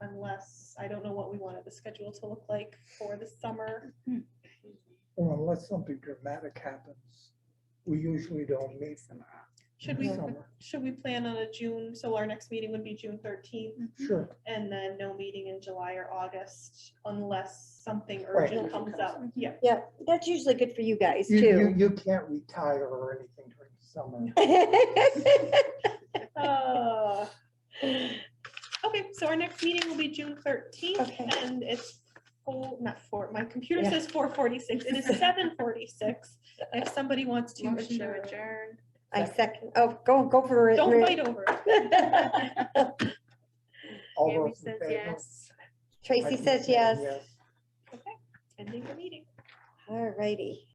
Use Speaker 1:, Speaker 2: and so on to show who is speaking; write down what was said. Speaker 1: I don't know what we wanted the schedule to look like for the summer.
Speaker 2: Well, unless something dramatic happens, we usually don't meet
Speaker 1: Should
Speaker 2: in
Speaker 1: we,
Speaker 2: the summer.
Speaker 1: should we plan on a June, so our next meeting would be June thirteenth,
Speaker 3: Mm-hmm.
Speaker 2: Sure,
Speaker 1: and then no meeting in July or August unless something
Speaker 2: Right.
Speaker 1: urgent comes up, yeah.
Speaker 4: Yeah, that's usually good for you guys
Speaker 2: you, you,
Speaker 4: too.
Speaker 2: you can't retire or anything during the summer.
Speaker 1: Uh, Okay, so our next meeting will be June thirteenth,
Speaker 4: Okay.
Speaker 1: and it's, full- not four, my computer
Speaker 4: Yeah.
Speaker 1: says four forty-six, it is seven forty-six. If somebody wants to
Speaker 3: Motion to
Speaker 1: adjourn,
Speaker 3: adjourn.
Speaker 4: I second, oh, go, go for it.
Speaker 1: don't
Speaker 4: Rick.
Speaker 1: fight over it.
Speaker 2: All
Speaker 3: Gabby
Speaker 2: those in
Speaker 3: says
Speaker 2: favor?
Speaker 3: yes.
Speaker 2: I
Speaker 4: Tracy
Speaker 2: keep
Speaker 4: says
Speaker 2: saying
Speaker 4: yes.
Speaker 1: ending the meeting.
Speaker 4: All righty.